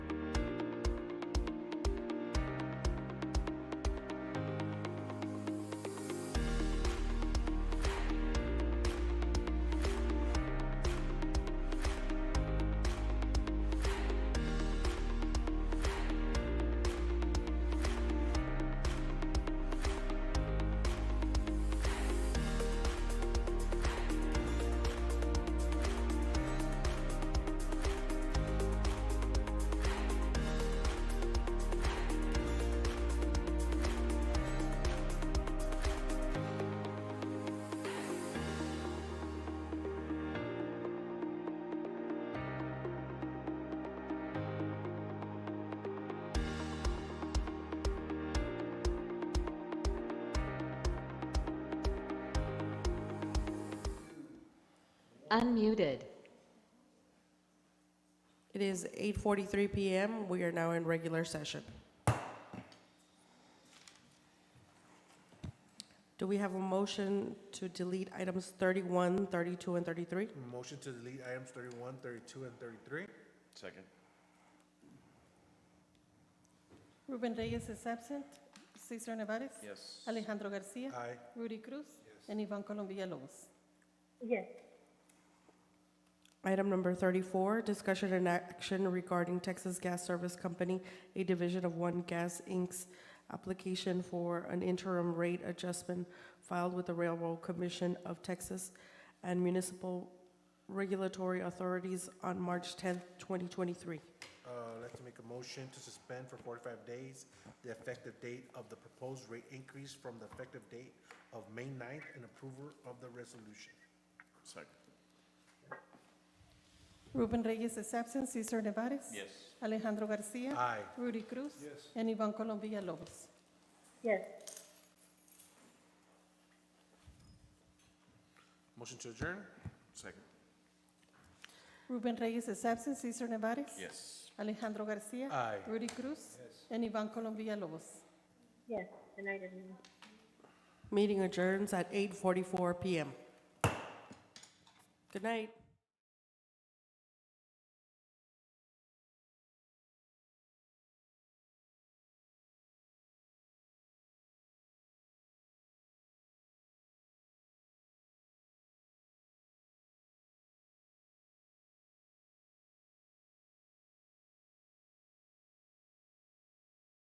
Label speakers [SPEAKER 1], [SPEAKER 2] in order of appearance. [SPEAKER 1] Unmuted.
[SPEAKER 2] It is 8:43 PM. We are now in regular session. Do we have a motion to delete items 31, 32, and 33?
[SPEAKER 3] Motion to delete items 31, 32, and 33.
[SPEAKER 4] Second.
[SPEAKER 5] Ruben Reyes is absent. Cesar Nevares.
[SPEAKER 4] Yes. Ah.
[SPEAKER 5] Alejandro Garcia.
[SPEAKER 3] Aye.
[SPEAKER 5] Rudy Cruz. And Ivan Colom Villalobos.
[SPEAKER 2] Item number 34, discussion and action regarding Texas Gas Service Company, a division of One Gas Inc.'s application for an interim rate adjustment filed with the Railroad Commission of Texas and municipal regulatory authorities on March 10th, 2023.
[SPEAKER 3] Uh, I'd like to make a motion to suspend for 45 days the effective date of the proposed rate increase from the effective date of May 9th and approval of the resolution.
[SPEAKER 4] Second.
[SPEAKER 5] Ruben Reyes is absent. Cesar Nevares.
[SPEAKER 4] Yes. Ah.
[SPEAKER 5] Alejandro Garcia.
[SPEAKER 3] Aye.
[SPEAKER 5] Rudy Cruz. And Ivan Colom Villalobos.
[SPEAKER 3] Motion to adjourn?
[SPEAKER 4] Second.
[SPEAKER 5] Ruben Reyes is absent. Cesar Nevares.
[SPEAKER 4] Yes. Ah.
[SPEAKER 5] Alejandro Garcia.
[SPEAKER 3] Aye.
[SPEAKER 5] Rudy Cruz. And Ivan Colom Villalobos.
[SPEAKER 2] Meeting adjourns at 8:44 PM. Good night.